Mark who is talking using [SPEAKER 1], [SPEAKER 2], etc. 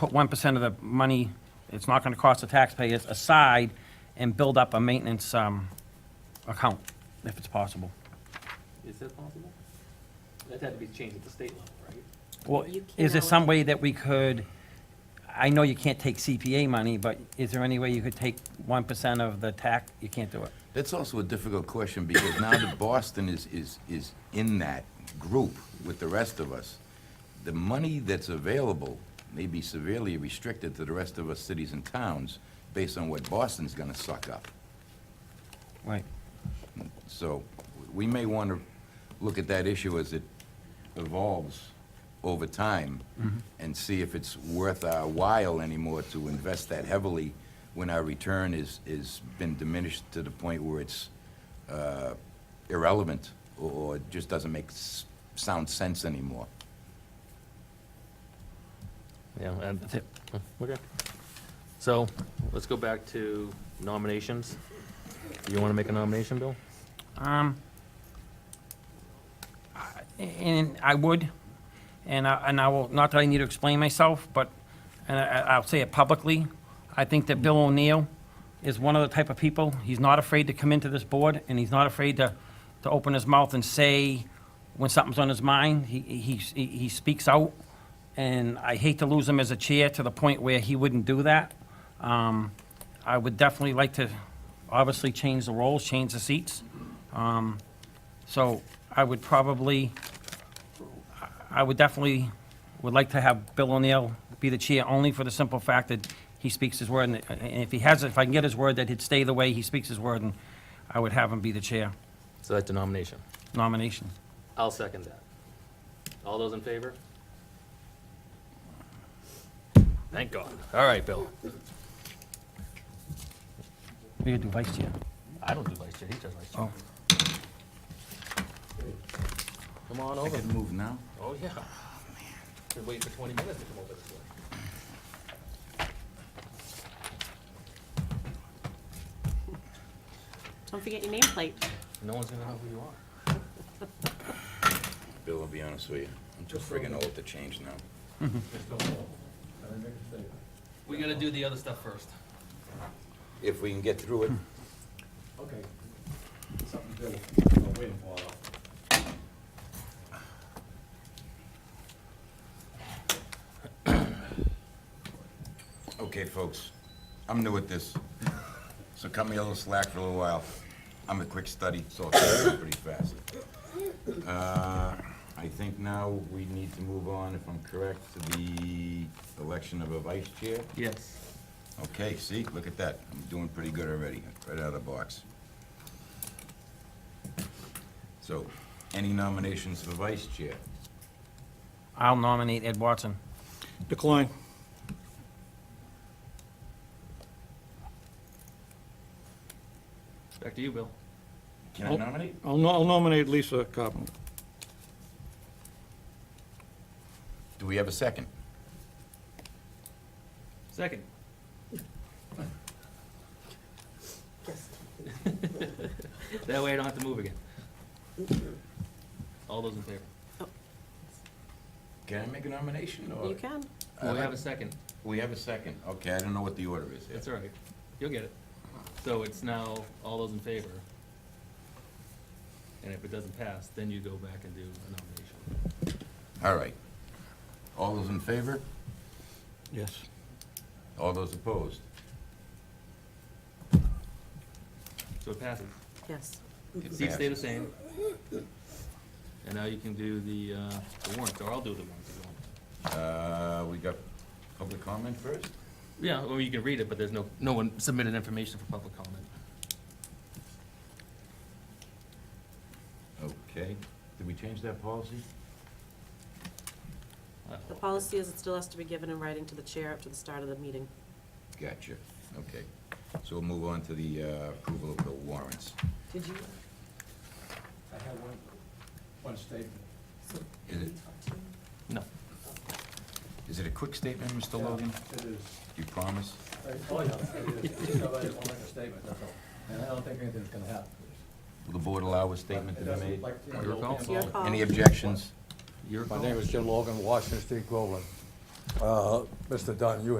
[SPEAKER 1] put one percent of the money, it's not gonna cost the taxpayers, aside and build up a maintenance, um, account, if it's possible.
[SPEAKER 2] Is that possible? That had to be changed at the state level, right?
[SPEAKER 1] Well,
[SPEAKER 3] You
[SPEAKER 1] is there
[SPEAKER 3] can
[SPEAKER 1] some way that we could, I know you can't take CPA money, but is there any way you could take one percent of the tax? You can't do it.
[SPEAKER 4] That's also a difficult question because now that Boston is, is, is in that group with the rest of us, the money that's available may be severely restricted to the rest of us cities and towns based on what Boston's gonna suck up.
[SPEAKER 1] Right.
[SPEAKER 4] So we may want to look at that issue as it evolves over time and see if it's worth our while anymore to invest that heavily when our return is, is been diminished to the point where it's uh, irrelevant or- or it just doesn't make s- sound sense anymore.
[SPEAKER 2] Yeah, and,
[SPEAKER 1] That's it.
[SPEAKER 2] okay. So, let's go back to nominations. Do you wanna make a nomination, Bill?
[SPEAKER 1] Um, I- and I would, and I, and I will, not that I need to explain myself, but, and I, I- I'll say it publicly, I think that Bill O'Neill is one of the type of people, he's not afraid to come into this board, and he's not afraid to, to open his mouth and say when something's on his mind, he, he, he he speaks out, and I hate to lose him as a chair to the point where he wouldn't do that. Um, I would definitely like to, obviously, change the roles, change the seats. Um, So I would probably, I would definitely, would like to have Bill O'Neill be the chair, only for the simple fact that he speaks his word, and- and if he has, if I can get his word that he'd stay the way he speaks his word, and I would have him be the chair
[SPEAKER 2] So that's a nomination.
[SPEAKER 1] nomination.
[SPEAKER 2] I'll second that. All those in favor? Thank God. All right, Bill.
[SPEAKER 1] We could do vice chair.
[SPEAKER 2] I don't do vice chair, he does vice chair.
[SPEAKER 1] Oh,
[SPEAKER 2] Come on
[SPEAKER 4] I
[SPEAKER 2] over.
[SPEAKER 4] could move now.
[SPEAKER 2] Oh, yeah. Been waiting for twenty minutes to come over this way.
[SPEAKER 3] Don't forget your nameplate.
[SPEAKER 2] No one's gonna know who you are.
[SPEAKER 4] Bill, I'll be honest with you, I'm too friggin' old to change now.
[SPEAKER 2] We gotta do the other stuff first.
[SPEAKER 4] If we can get through it,
[SPEAKER 5] Hmm. Okay. Something to do. I'm waiting for it.
[SPEAKER 4] Okay, folks, I'm new at this, so cut me a little slack for a little while. I'm a quick study, so I'll tell you pretty fast. Uh, I think now we need to move on, if I'm correct, to the election of a vice chair.
[SPEAKER 2] Yes.
[SPEAKER 4] Okay, see, look at that, I'm doing pretty good already, right out of the box. So, any nominations for vice chair?
[SPEAKER 1] I'll nominate Ed Watson.
[SPEAKER 6] Decline.
[SPEAKER 2] Back to you, Bill.
[SPEAKER 4] Can
[SPEAKER 2] Oh.
[SPEAKER 4] I nominate?
[SPEAKER 6] I'll no- I'll nominate Lisa Carpenter.
[SPEAKER 4] Do we have a second?
[SPEAKER 2] Second. That way I don't have to move again. All those in favor?
[SPEAKER 4] Can I make a nomination, or?
[SPEAKER 3] You can.
[SPEAKER 2] Well, we have a second.
[SPEAKER 4] We have a second, okay, I don't know what the order is.
[SPEAKER 2] That's all right. You'll get it. So it's now all those in favor. And if it doesn't pass, then you go back and do a nomination.
[SPEAKER 4] All right. All those in favor?
[SPEAKER 6] Yes.
[SPEAKER 4] All those opposed?
[SPEAKER 2] So it passes.
[SPEAKER 3] Yes.
[SPEAKER 4] It
[SPEAKER 2] Seats stay the
[SPEAKER 4] passes.
[SPEAKER 2] same. And now you can do the, uh, the warrants, or I'll do the warrants if you want.
[SPEAKER 4] Uh, we got public comment first?
[SPEAKER 2] Yeah, well, you can read it, but there's no, no one submitted information for public comment.
[SPEAKER 4] Okay. Did we change that policy?
[SPEAKER 2] Uh,
[SPEAKER 3] The policy is it still has to be given in writing to the chair up to the start of the meeting.
[SPEAKER 4] Gotcha, okay. So we'll move on to the uh, approval of the warrants.
[SPEAKER 3] Did you?
[SPEAKER 5] I have one, one statement.
[SPEAKER 4] Is it,
[SPEAKER 2] No.
[SPEAKER 4] is it a quick statement, Mr. Logan?
[SPEAKER 5] It is.
[SPEAKER 4] You promise?
[SPEAKER 5] I- Oh, yeah, it is. Just know that I want to make a statement, that's all. And I don't think anything's going to happen.
[SPEAKER 4] Will the board allow a statement to be made?
[SPEAKER 2] Your call.
[SPEAKER 3] It's your call.
[SPEAKER 4] Any objections?
[SPEAKER 2] Your
[SPEAKER 7] My
[SPEAKER 2] call.
[SPEAKER 7] name is Jim Logan, Washington State Groveland.
[SPEAKER 5] Uh, Mr. Dunn, you